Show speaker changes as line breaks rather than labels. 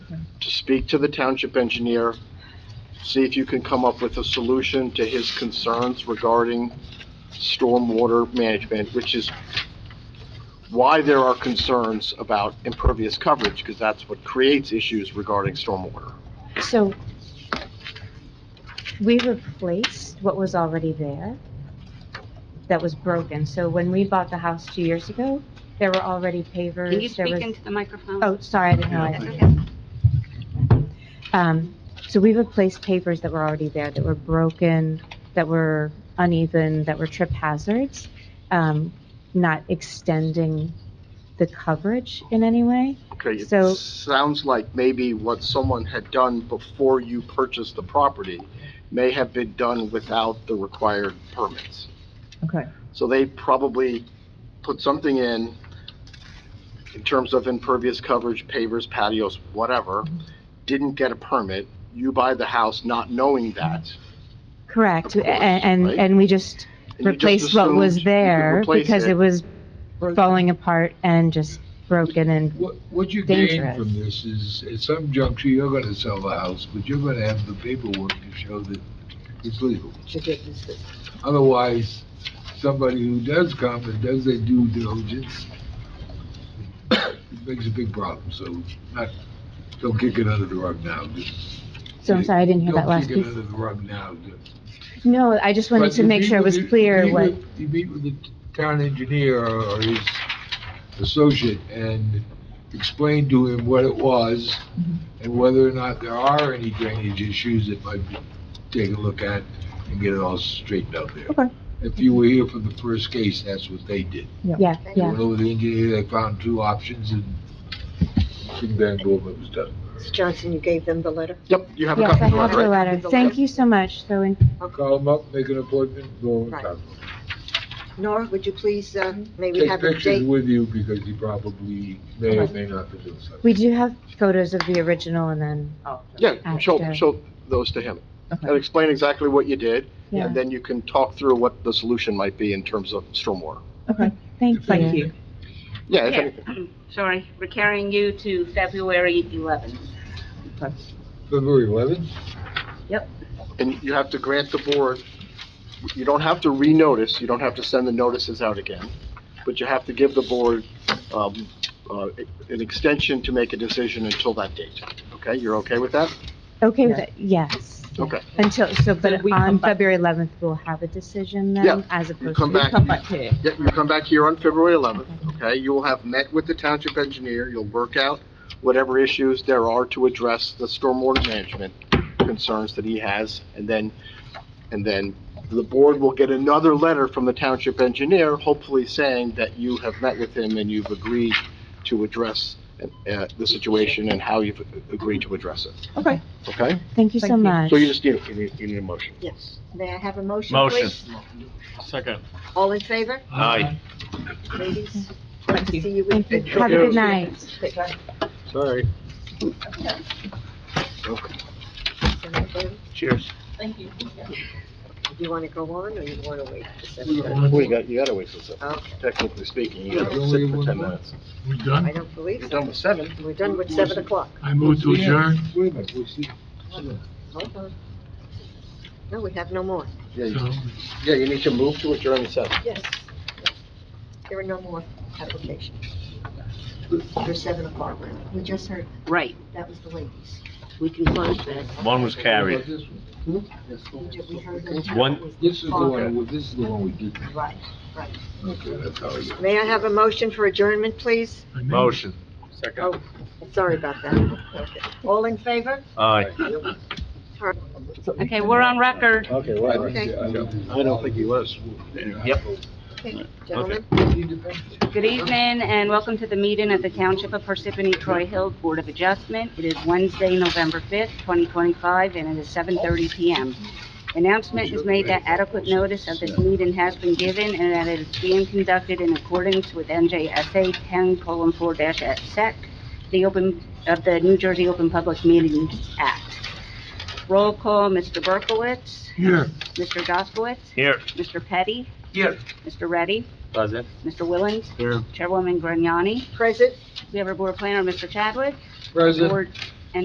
to speak to the township engineer, see if you can come up with a solution to his concerns regarding stormwater management, which is why there are concerns about impervious coverage, because that's what creates issues regarding stormwater.
So we replaced what was already there that was broken. So when we bought the house two years ago, there were already pavers.
Can you
there
speak
was-
into the microphone?
Oh, sorry, I didn't
That's
realize.
okay.
Um, so we replaced pavers that were already there, that were broken, that were uneven, that were trip hazards, um, not extending the coverage in any way.
Okay, it
So-
sounds like maybe what someone had done before you purchased the property may have been done without the required permits.
Okay.
So they probably put something in, in terms of impervious coverage, pavers, patios, whatever,
Mm-hmm.
didn't get a permit, you buy the house not knowing that.
Correct.
Of course,
And,
right?
and we just
and you just
replaced what
assumed
was
you could
there
replace
because it was falling apart and just broken and
What, what you gain
Dangerous.
from this is, at some juncture, you're gonna sell the house, but you're gonna have the paperwork to show that it's legal. Otherwise, somebody who does come and does their due diligence, it makes a big problem, so not, don't kick it under the rug now. just-
So I'm sorry, I didn't hear that last
Don't
piece.
kick it under the rug now. just-
No, I just wanted
But
to
you
make
meet
sure it
with
was
the- you
clear
meet
what,
with- You meet with the town engineer or his associate and explain to him what it was
Mm-hmm.
and whether or not there are any drainage issues that might be, take a look at and get it all straightened out there.
Okay.
If you were here for the first case, that's what they did.
yeah,
They
yeah.
went over the engineer, they found two options and bing bang boom, it was done.
Mr. Johnson, you gave them the letter?
Yep, you have a
Yes,
copy
I
of the
have
letter,
the
right?
letter. Thank you so much. So in
Call them up, make an appointment, go and
Right.
talk.
Nora, would you please, uh, may we
Take
have a
pictures
date?
with you because you probably may or may not be doing something.
we do have photos of the original and then,
Yeah, show,
After.
show those to him.
Okay.
And explain exactly what you did,
Yeah.
and then you can talk through what the solution might be in terms of stormwater.
thank
Thank
you.
you.
Yeah, if
Yeah.
anything.
Sorry, we're carrying you to February 11th.
Okay.
February 11th?
And you have to grant the board, you don't have to renotice, you don't have to send the notices out again, but you have to give the board um, uh, an extension to make a decision until that date. Okay, you're okay with that?
Okay with
Yeah.
it, yes.
Okay.
Until, so, but
Then we
on
come back.
February 11th, we'll have a decision
Yeah,
then, as
You
opposed
come
to,
back,
Come back here.
yeah, you come back here on February 11th, okay? You will have met with the township engineer, you'll work out whatever issues there are to address the stormwater management concerns that he has, and then, and then the board will get another letter from the township engineer, hopefully saying that you have met with him and you've agreed to address uh, the situation and how you've agreed to address it,
Okay.
okay?
thank you
Thank
so
you.
much.
So you just need, you need you need a motion.
Yes. May I have a motion,
Motion.
please?
Second.
All in favor,
Aye.
ladies?
Thank you.
See you in
Thank you. Have a good night.
Sorry.
February.
Cheers.
Do you want to go on or you want to wait? for
We
September?
got one
Well, you
more.
got, you gotta wait for seven,
Okay,
technically speaking, you
Oh. Yeah,
gotta
we only
sit
have
for
one
ten
more.
minutes.
We
I
done?
don't believe
You're
so.
done with seven.
We're done with seven o'clock.
I move to
Yeah,
adjourn?
Wait a minute, we'll see. Hold on.
Hold on. No, we have no more.
Yeah, you-
So,
yeah, you need to move to adjourn at seven.
Yes. There are no more applications for seven o'clock. We just heard,
Right,
that was the ladies.
we can close that.
One was
What about
carried.
this one? This
We
one?
ju- we heard that that
One-
was
This is the
father.
one, we- this is the one we did.
Right, right.
Okay, that's how you.
May I have a motion for adjournment, please?
I made-
Motion. Second.
Oh, sorry about that. Okay. All in favor?
Aye.
Okay, we're on record.
Okay,
Okay.
I don't think he was.
Yep.
Okay, gentlemen.
Good evening and welcome to the meeting at the Township of Parsippany Troy Hill Board of Adjustment. It is Wednesday, November 5th, 2025, and it is 7:30 PM. Announcement is made that adequate notice of this meeting has been given and that it is being conducted in accordance with NJSA 10:4-at sec, E the open, of the New Jersey Open Public Meetings Act. Roll call, Mr. Berkowitz,
Here.
Mr. Goskowitz,
Here.
Mr. Petty,
Here.
Mr. Reddy,
Present.
Mr. Willens,
Here.
Chairwoman Grignani,
Present?
we have our board planner, Mr. Chadwick.
President,
Board-